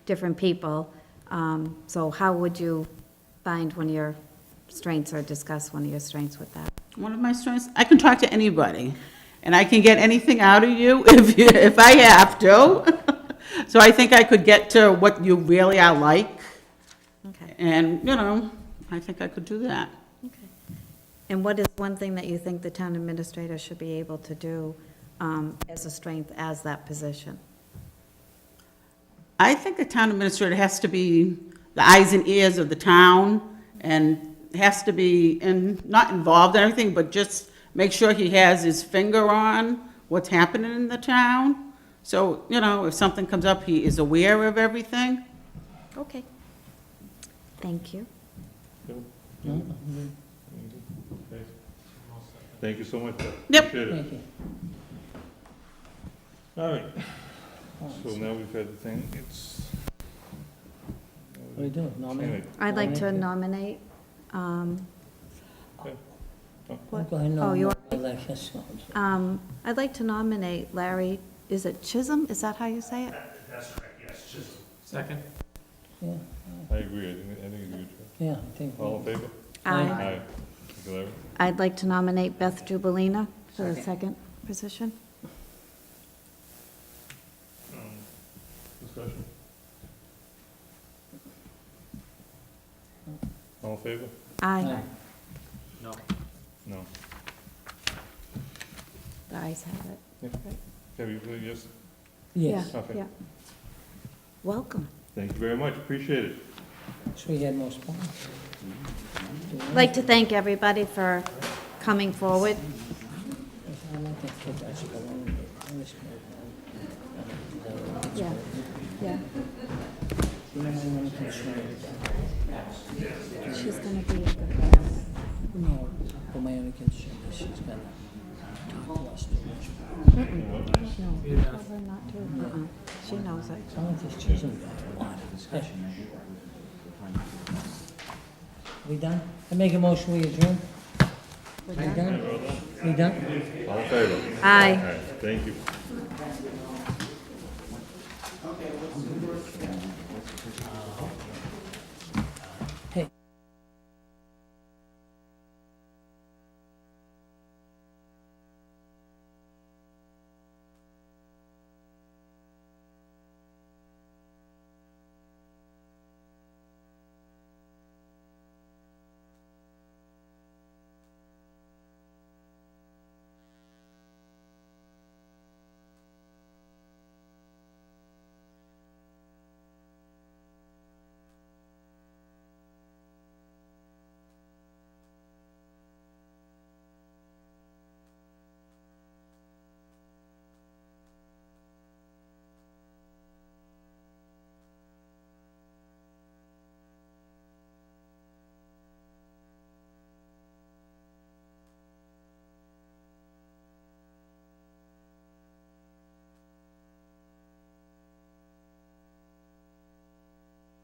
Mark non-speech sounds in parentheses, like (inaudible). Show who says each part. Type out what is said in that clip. Speaker 1: different people. Um, So how would you find one of your strengths or discuss one of your strengths with that?
Speaker 2: One of my strengths, I can talk to anybody, and I can get anything out of you (laughs) if, you- if I have to. (laughs) So I think I could get to what you really are like,
Speaker 1: Okay.
Speaker 2: and, you know, I think I could do that.
Speaker 1: Okay. And what is one thing that you think the town administrator should be able to do um, as a strength as that position?
Speaker 2: I think the town administrator has to be the eyes and ears of the town, and has to be, and not involved in everything, but just make sure he has his finger on what's happening in the town. So, you know, if something comes up, he is aware of everything.
Speaker 1: Okay. Thank you.
Speaker 3: Thank you so much.
Speaker 2: Yep.
Speaker 3: Appreciate it.
Speaker 4: Thank you.
Speaker 3: All right,
Speaker 4: Oh,
Speaker 3: so now we've had the thing, it's.
Speaker 4: What do you do, nominate?
Speaker 3: Anyway,
Speaker 1: I'd like to
Speaker 4: Nominate.
Speaker 1: nominate, um,
Speaker 4: I'll Go ahead and
Speaker 1: Oh, you
Speaker 4: nominate Alexis.
Speaker 1: um, I'd like to nominate Larry, is it Chisholm? Is that how you say it?
Speaker 5: Second?
Speaker 4: Yeah,
Speaker 3: I agree, I think, I think it's a good job.
Speaker 4: yeah, I think.
Speaker 3: All in favor?
Speaker 4: Aye.
Speaker 1: Aye.
Speaker 3: Thank you, Larry.
Speaker 1: I'd like to nominate Beth Jubalina for the
Speaker 2: Second.
Speaker 1: second position.
Speaker 3: Um, Discussion? All in favor?
Speaker 1: Aye.
Speaker 5: No.
Speaker 3: No.
Speaker 1: The ayes have it.
Speaker 3: Have you, voted yes?
Speaker 4: Yes,
Speaker 1: Yeah,
Speaker 3: Okay.
Speaker 1: yeah. Welcome.
Speaker 3: Thank you very much, appreciate it.
Speaker 4: so we had more spots.
Speaker 1: I'd like to thank everybody for coming forward.
Speaker 4: I don't think that's the one. I was gonna-
Speaker 1: Yeah, yeah.
Speaker 4: You might wanna consider that.
Speaker 1: She's going to be a good
Speaker 4: No, but my only concern is she's gonna talk to us too much.
Speaker 1: No, tell her not to. Uh-uh. She knows it.
Speaker 4: Some of this chisel got a lot of discussion. We done? I make a motion, we adjourn? We done? We done?
Speaker 3: All in favor?
Speaker 1: Aye.
Speaker 3: All right, thank you.